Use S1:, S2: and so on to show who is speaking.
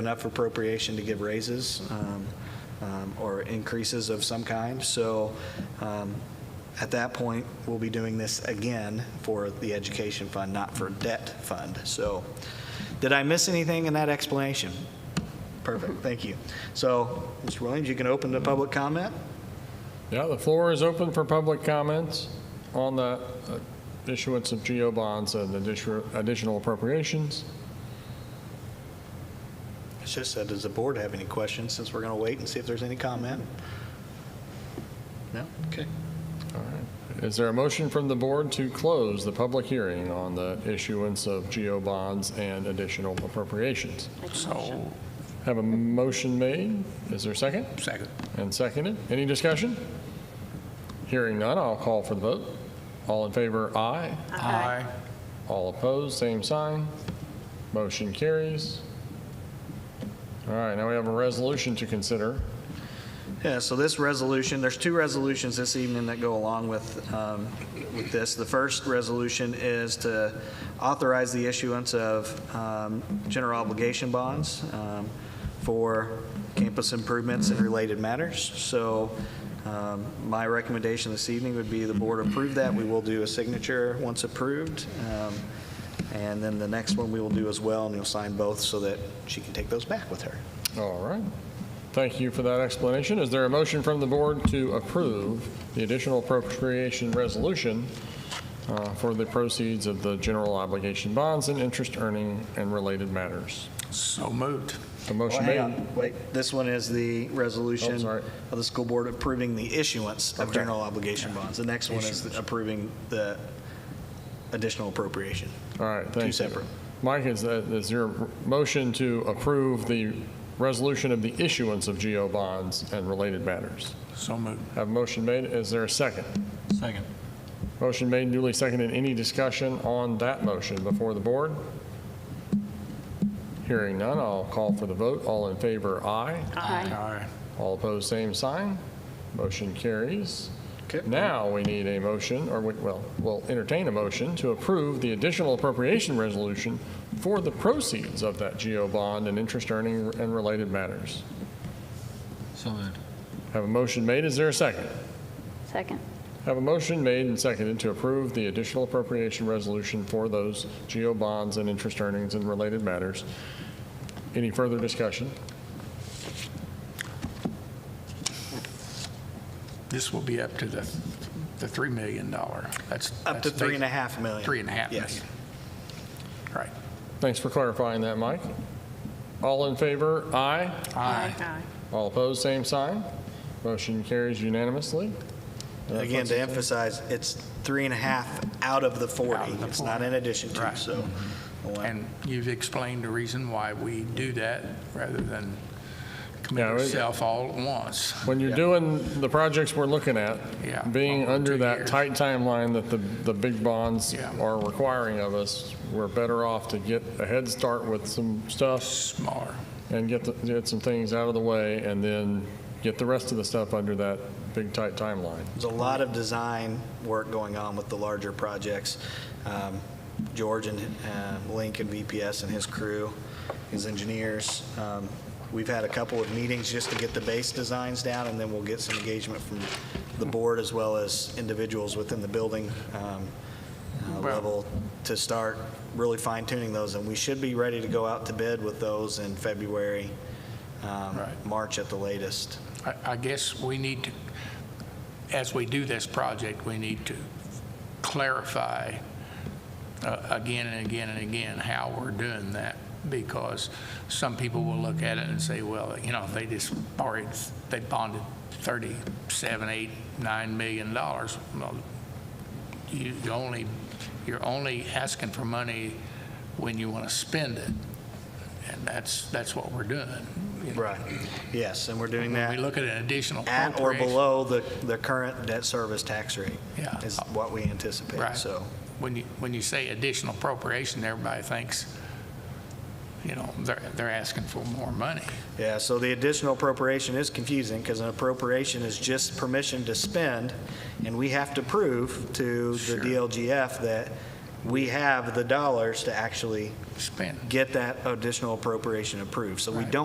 S1: enough appropriation to give raises um, um, or increases of some kind. So um, at that point, we'll be doing this again for the education fund, not for debt fund. So did I miss anything in that explanation? Perfect, thank you. So, Mr. Williams, you can open the public comment.
S2: Yeah, the floor is open for public comments on the uh, issuance of GO bonds and addition- additional appropriations.
S1: It's just that, does the board have any questions, since we're going to wait and see if there's any comment? No? Okay.
S2: All right. Is there a motion from the board to close the public hearing on the issuance of GO bonds and additional appropriations?
S3: So,
S2: Have a motion made. Is there a second?
S3: second.
S2: And seconded. Any discussion? Hearing none, I'll call for the vote. All in favor, aye.
S3: Aye.
S2: All opposed, same sign. Motion carries. All right, now we have a resolution to consider.
S1: Yeah, so this resolution, there's two resolutions this evening that go along with, um, with this. The first resolution is to authorize the issuance of um, general obligation bonds um, for campus improvements and related matters. So um, my recommendation this evening would be the board approve that. We will do a signature once approved. Um, And then the next one we will do as well, and you'll sign both so that she can take those back with her.
S2: All right. Thank you for that explanation. Is there a motion from the board to approve the additional appropriation resolution uh, for the proceeds of the general obligation bonds and interest earning and related matters?
S3: So moved.
S2: A motion
S1: Well, hang
S2: made.
S1: on, wait, this one is the
S2: Oh,
S1: resolution
S2: sorry.
S1: of the school board approving the issuance of
S2: Okay.
S1: general obligation bonds. The next one is approving the additional appropriation.
S2: All right, thank you.
S1: separate.
S2: Mike, is that, is your motion to approve the resolution of the issuance of GO bonds and related matters?
S3: So moved.
S2: Have a motion made. Is there a second?
S3: Second.
S2: Motion made, duly seconded. Any discussion on that motion before the board? Hearing none, I'll call for the vote. All in favor, aye.
S4: Aye.
S3: Aye.
S2: All opposed, same sign. Motion carries.
S1: Okay.
S2: Now, we need a motion, or we- well, we'll entertain a motion to approve the additional appropriation resolution for the proceeds of that GO bond and interest earning and related matters.
S3: So moved.
S2: Have a motion made. Is there a second?
S4: Second.
S2: Have a motion made and seconded to approve the additional appropriation resolution for those GO bonds and interest earnings and related matters. Any further discussion?
S3: This will be up to the, the $3 million. That's.
S1: Up to
S3: that's
S1: three and a
S3: big.
S1: half million.
S3: Three and a half million.
S1: Yes.
S3: Right.
S2: Thanks for clarifying that, Mike. All in favor, aye.
S3: Aye.
S2: All opposed, same sign. Motion carries unanimously. Uh,
S1: Again, to emphasize, it's three and a half out of the 40.
S3: Out of the
S1: It's not
S3: 40.
S1: in addition to,
S3: Right.
S1: so. I want-
S3: And you've explained the reason why we do that rather than commit
S2: Yeah, we-
S3: yourself all at once.
S2: When you're doing the projects we're looking at,
S3: Yeah,
S2: being
S3: over
S2: under
S3: two
S2: that
S3: years.
S2: tight timeline that the, the big bonds
S3: Yeah.
S2: are requiring of us, we're better off to get a head start with some stuff
S3: Smaller.
S2: and get, the- get some things out of the way and then get the rest of the stuff under that big tight timeline.
S1: There's a lot of design work going on with the larger projects. Um, George and uh, Link and VPS and his crew, his engineers. Um, We've had a couple of meetings just to get the base designs down, and then we'll get some engagement from the board as well as individuals within the building um, uh,
S3: Well-
S1: level to start really fine tuning those. And we should be ready to go out to bid with those in February, um,
S3: Right.
S1: March at the latest.
S3: I, I guess we need to, as we do this project, we need to clarify uh, again and again and again how we're doing that, because some people will look at it and say, well, you know, they just borrowed, they bonded 37, 8, 9 million dollars. Well, you you only, you're only asking for money when you want to spend it, and that's, that's what we're doing. you know.
S1: Right. Yes, and we're doing that.
S3: When we look at an additional
S1: at or
S3: appropriation-
S1: below the, the current debt service tax rate.
S3: Yeah.
S1: Is what we anticipate,
S3: Right.
S1: so.
S3: When you, when you say additional appropriation, everybody thinks, you know, they're, they're asking for more money.
S1: Yeah, so the additional appropriation is confusing because an appropriation is just permission to spend, and we have to prove to the
S3: Sure.
S1: DLGF that we have the dollars to actually
S3: spend.
S1: get that additional appropriation approved. So we
S3: Right.
S1: don't